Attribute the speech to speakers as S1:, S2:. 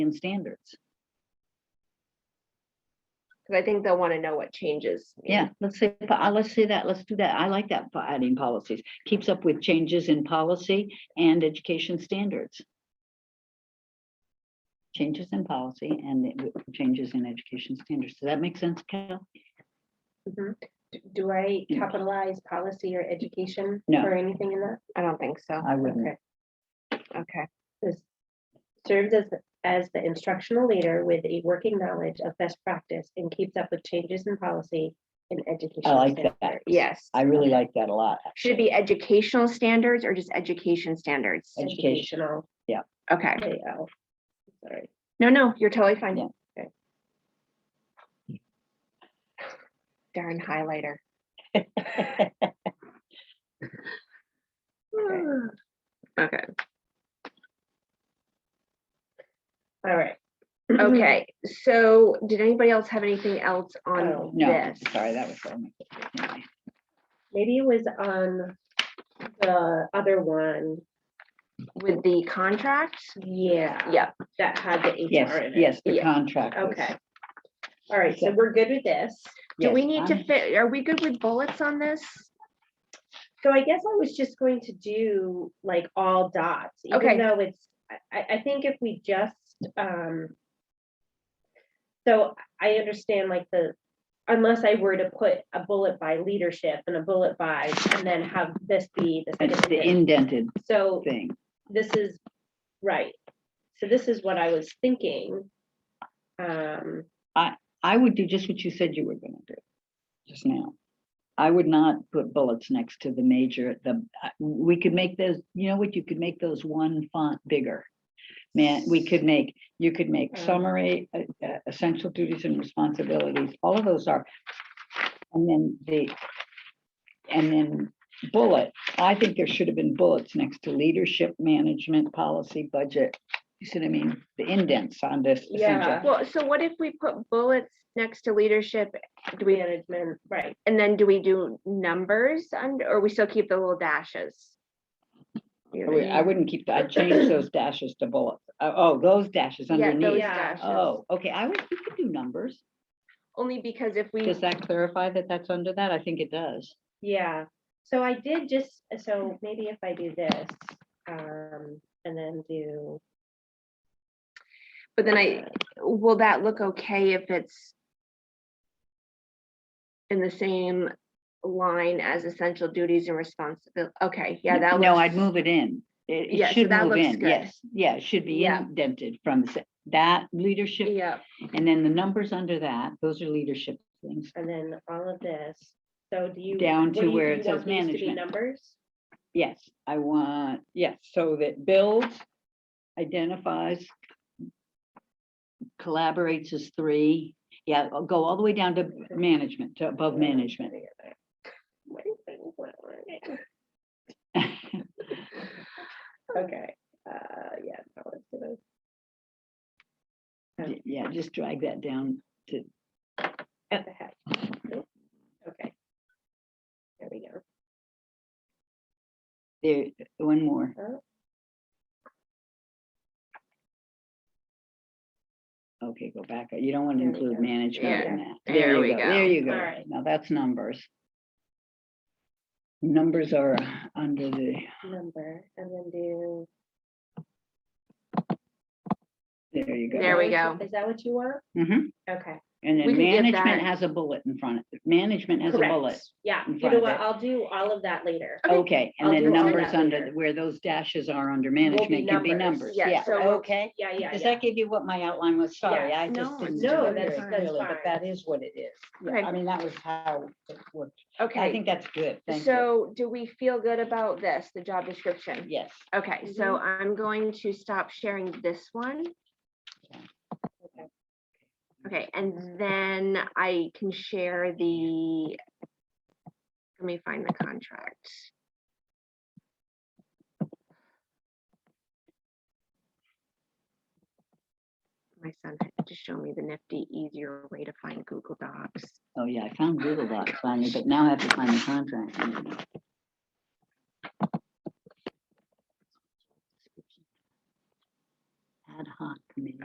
S1: and standards.
S2: Because I think they'll want to know what changes. mean.
S1: Yeah, let's say, po- uh, let's say that, let's do that. I like that, po- adding policies. Keeps up with changes in policy and education standards. Changes in policy and it w- changes in education standards. Does that make sense, Cal?
S3: Mhm. D- Do I
S1: Yeah.
S3: capitalize policy or education
S1: No.
S3: or anything in that?
S2: I don't think so.
S1: I wouldn't.
S3: Okay.
S2: Okay.
S3: This serves as, the- as the instructional leader with a working knowledge of best practice and keeps up with changes in policy and education.
S1: I like that.
S3: standards.
S2: Yes.
S1: I really like that a lot.
S2: Should it be educational standards or just education standards?
S1: Edu- education.
S3: Educational.
S2: Okay.
S3: there you go. Sorry.
S2: No, no, you're totally fine.
S1: Yeah.
S2: Okay. Darn highlighter.
S1: actually.
S2: Okay.
S3: All right.
S2: Okay. So did anybody else have anything else on
S3: Oh,
S1: No,
S2: this?
S1: sorry, that was. wrong. Anyway,
S3: Maybe it was on the other one.
S2: With the contract?
S3: Yeah.
S2: Yep.
S3: That had the HR
S1: Yes,
S3: in it.
S1: yes, the
S2: Yeah.
S1: contract. was-
S3: Okay. All right, so we're good with this.
S2: Do we
S1: yes,
S2: need to
S1: I'm-
S2: fit, are we good with bullets on this?
S3: So I guess I was just going to do like all dots,
S2: Okay.
S3: even though it's, I- I, I think if we just, um. So I understand like the, unless I were to put a bullet by leadership and a bullet by, and then have this be the
S1: It's
S3: second
S1: the
S3: thing.
S1: indented
S3: So
S1: thing.
S3: this is, right, so this is what I was thinking. Um,
S1: I would do just what you said you were gonna do just now. I would not put bullets next to the major, the, I- we could make those, you know what, you could make those one font bigger. Man, we could make, you could make
S3: Mm.
S1: summary, uh, uh, essential duties and responsibilities, all of those are. And then the, and then bullet, I think there should have been bullets next to leadership, management, policy, budget. You see what I mean? The indents on this.
S3: Yeah.
S1: essential.
S2: Well, so what if we put bullets next to leadership? Do we,
S3: management, right,
S2: and then do we do numbers under, or we still keep the little dashes? You
S1: I
S2: know what
S1: would- I wouldn't keep, that. I'd change those dashes to bullets. Oh, Oh, those dashes
S2: I mean? Yeah, those
S1: underneath.
S3: Yeah.
S2: dashes.
S1: Oh, okay, I would, you could do numbers.
S2: Only because if we,
S1: Does that clarify that that's under that? I think it does.
S3: yeah, so I did just, so maybe if I do this, um, and then do.
S2: but then I, will that look okay if it's in the same line as essential duties and responsibility? Okay, yeah,
S1: N-
S2: that
S1: No,
S2: looks-
S1: I'd move it in. It-
S2: Yeah,
S1: It
S2: so
S1: should
S2: that
S1: move
S2: looks
S1: in,
S2: good.
S1: yes. Yeah, it should be
S2: Yeah.
S1: indented from the se- that leadership,
S2: Yeah,
S1: and then the numbers under that, those are leadership things.
S3: And then all of this, so do you?
S1: Down
S3: what
S1: to
S3: do you-
S1: where
S3: do
S1: it
S3: you
S1: says
S3: want these to be
S1: management.
S3: Numbers,
S1: Yes, I want, yes, so that builds, identifies, collaborates as three. Yeah, I'll go all the way down to management, to above management.
S3: What is it? What are they? Okay, uh, yeah. that was good. Yeah.
S1: J- Yeah, just drag that down to,
S3: What the heck? Nope. Okay. There we go.
S1: there, one more.
S3: Oh.
S1: Okay, go back. You don't want to
S3: There we
S1: include
S3: go.
S1: management
S2: Yeah.
S1: in that.
S2: There
S1: you
S2: we
S1: There
S2: go.
S1: you
S3: All
S1: go.
S3: right.
S1: Now that's numbers. Numbers are under the,
S3: Number and then do.
S1: there you go.
S2: There we
S3: is that
S2: go.
S3: what- Is that what you want?
S1: Mhm.
S3: Okay.
S1: And
S2: We
S1: then
S2: could get
S1: management
S2: that.
S1: has a bullet in front of it. Management has a
S3: correct.
S1: bullet.
S3: Yeah,
S1: in
S3: you
S1: front
S3: know
S1: of
S3: what,
S1: it.
S3: I'll do all of that later.
S2: Okay,
S1: Okay, and
S3: I'll
S1: then
S3: do all
S1: numbers
S3: that
S1: under,
S3: later.
S1: the- where those dashes are under
S3: be
S1: management can be
S3: numbers.
S1: numbers.
S2: Yeah,
S1: Yeah,
S2: so we'll-
S1: okay.
S3: Yeah, yeah,
S1: Does
S3: yeah.
S1: that give you what my outline was? Sorry, I
S2: No,
S1: just didn't
S2: it's
S1: do
S2: fine.
S1: it
S2: That's-
S1: very
S2: that's
S1: clearly, but
S3: fine.
S1: that is what it is.
S2: Okay.
S1: Yeah, I mean, that was how it worked. I
S2: okay.
S1: think that's good. Thank you.
S2: So do we feel good about this, the job description?
S1: Yes.
S2: Okay, so I'm going to stop sharing this one.
S3: Okay.
S2: Okay, and then I can share the, let me find the contract. My son had to show me the nifty, easier way to find Google Docs.
S1: Oh, yeah, I found Google Docs finally, but now I have to find the contract.